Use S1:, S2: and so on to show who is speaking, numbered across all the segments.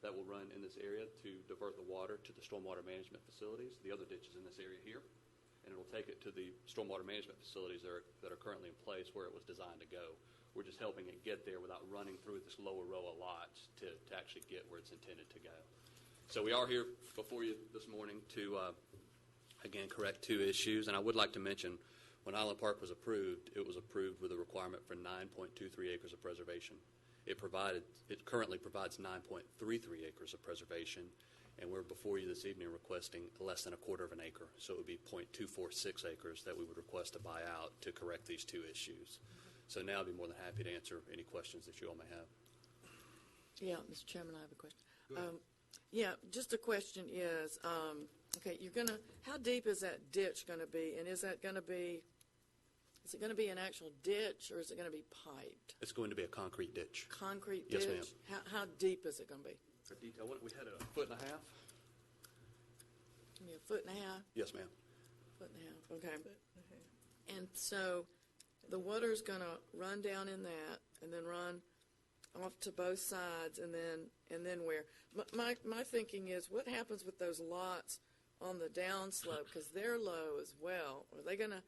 S1: that will run in this area to divert the water to the stormwater management facilities. The other ditch is in this area here, and it'll take it to the stormwater management facilities that are, that are currently in place where it was designed to go. We're just helping it get there without running through this lower row of lots to, to actually get where it's intended to go. So we are here before you this morning to, uh, again, correct two issues. And I would like to mention, when Island Park was approved, it was approved with a requirement for 9.23 acres of preservation. It provided, it currently provides 9.33 acres of preservation, and we're before you this evening requesting less than a quarter of an acre. So it would be .246 acres that we would request to buy out to correct these two issues. So now I'd be more than happy to answer any questions that you all may have.
S2: Yeah, Mr. Chairman, I have a question.
S3: Go ahead.
S2: Um, Yeah, just a question is, um, okay, you're gonna, how deep is that ditch gonna be? And is that gonna be, is it gonna be an actual ditch, or is it gonna be piped?
S1: It's going to be a concrete ditch.
S2: Concrete ditch?
S1: Yes, ma'am.
S2: How, how deep is it gonna be?
S1: For detail, what, we had a foot and a half?
S2: Give me a foot and a half,
S1: Yes, ma'am.
S2: foot and a half, okay. And so the water's gonna run down in that, and then run off to both sides and then and then where my my, my thinking is what happens with those lots on the downslope because they're low as well are they going to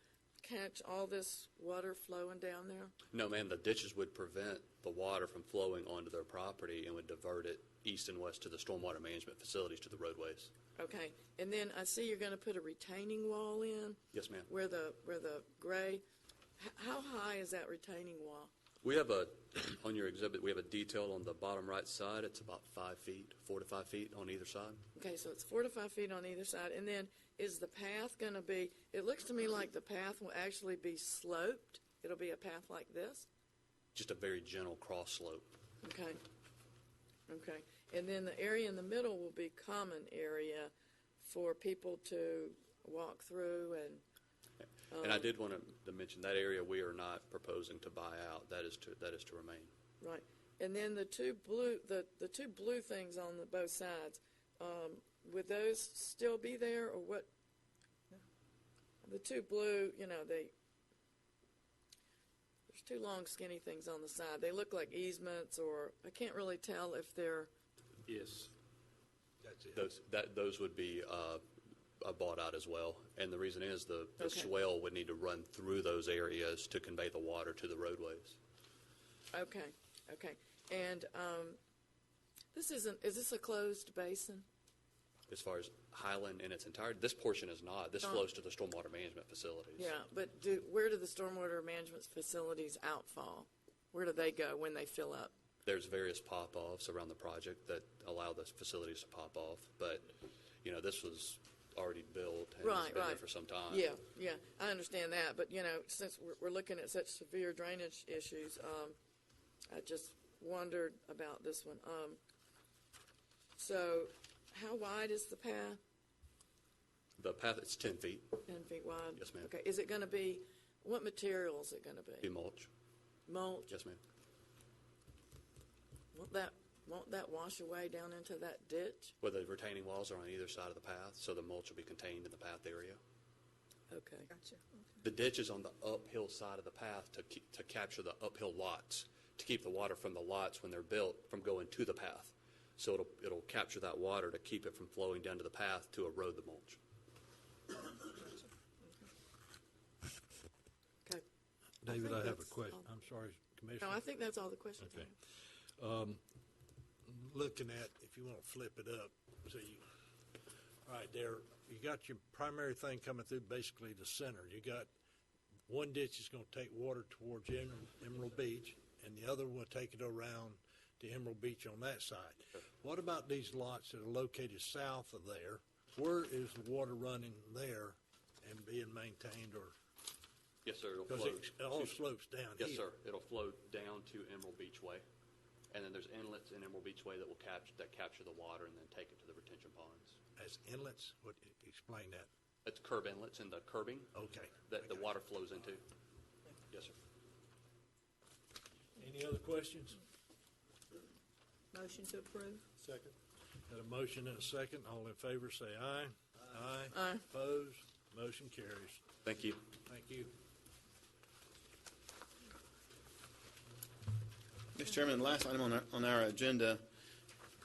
S2: catch all this water flowing down there
S1: No, ma'am, the ditches would prevent the water from flowing onto their property and would divert it east and west to the stormwater management facilities, to the roadways.
S2: okay and then i see you're going to put a retaining wall in
S1: Yes, ma'am.
S2: where the where the gray h- how high is that retaining wall
S1: We have a, on your exhibit, we have a detail on the bottom right side. It's about five feet, four to five feet on either side.
S2: Okay, so it's four to five feet on either side, and then is the path going to be, it looks to me like the path will actually be sloped. It'll be a path like this,
S1: Just a very gentle cross slope.
S2: okay? Okay, and then the area in the middle will be common area for people to walk through and,
S1: And I did want to mention, that area we are not proposing to buy out. That is to, that is to remain.
S2: right. And then the two blue, the, the two blue things on the both sides, um, would those still be there, or what? The two blue, you know, they, There's two long skinny things on the side. They look like easements or I can't really tell if they're
S1: Yes.
S3: That's
S1: Those, that, those would be uh, uh, bought out as well. And the reason is the the
S2: Okay.
S1: swell would need to run through those areas to convey the water to the roadways.
S2: okay, okay. And um, this isn't is this a closed basin?
S1: As far as Highland in its entirety, this portion is not. This
S2: Oh.
S1: flows to the stormwater management facilities.
S2: Yeah, but do, where do the stormwater management facilities outfall? Where do they go when they fill up?
S1: There's various pop-offs around the project that allow those facilities to pop off, but, you know, this was already built and has
S2: Right,
S1: been there
S2: right.
S1: for some time.
S2: Yeah, yeah, I understand that, but you know, since we're, we're looking at such severe drainage issues, um, I just wondered about this one. Um, so, how wide is the path?
S1: The path, it's 10 feet,
S2: 10 feet wide?
S1: Yes, ma'am.
S2: Okay, is it going to be, what material is it going to
S1: be
S2: be?
S1: mulch.
S2: Mulch?
S1: Yes, ma'am.
S2: Won't that, won't that wash away down into that ditch?
S1: Well, the retaining walls are on either side of the path, so the mulch will be contained in the path area.
S2: Okay,
S4: Gotcha.
S1: The ditch is on the uphill side of the path to, keep, to capture the uphill lots, to keep the water from the lots when they're built from going to the path. So it'll, it'll capture that water to keep it from flowing down to the path to erode the mulch.
S2: okay.
S3: David,
S2: think
S3: I have a
S2: that's
S3: question.
S2: all.
S3: I'm sorry,
S2: No, I
S3: Commissioner.
S2: think that's all the questions I
S3: Okay.
S2: have.
S3: Looking at, if you want to flip it up, so you, all right, there, you got your primary thing coming through basically the center. You got one ditch is going to take water towards Em- Emerald Beach, and the other will take it around to Emerald Beach on that side. What about these lots that are located south of there? Where is the water running there and being maintained or,
S1: Yes, sir, it'll
S3: because
S1: flow.
S3: it all slopes down here?
S1: Yes, sir, it'll flow down to Emerald Beach Way. And then there's inlets in Emerald Beach Way that will capture, that capture the water and then take it to the retention ponds.
S3: As inlets? What, explain that.
S1: It's curb inlets and the curbing
S3: Okay.
S1: that the water flows into. Yes, sir.
S3: Any other questions?
S4: Motion to approve?
S3: Second. Got a motion and a second. All in favor, say aye. Aye.
S2: Aye.
S3: Opposed? Motion carries.
S1: Thank you.
S3: Thank you.
S5: Mr. Chairman, the last item on our, on our agenda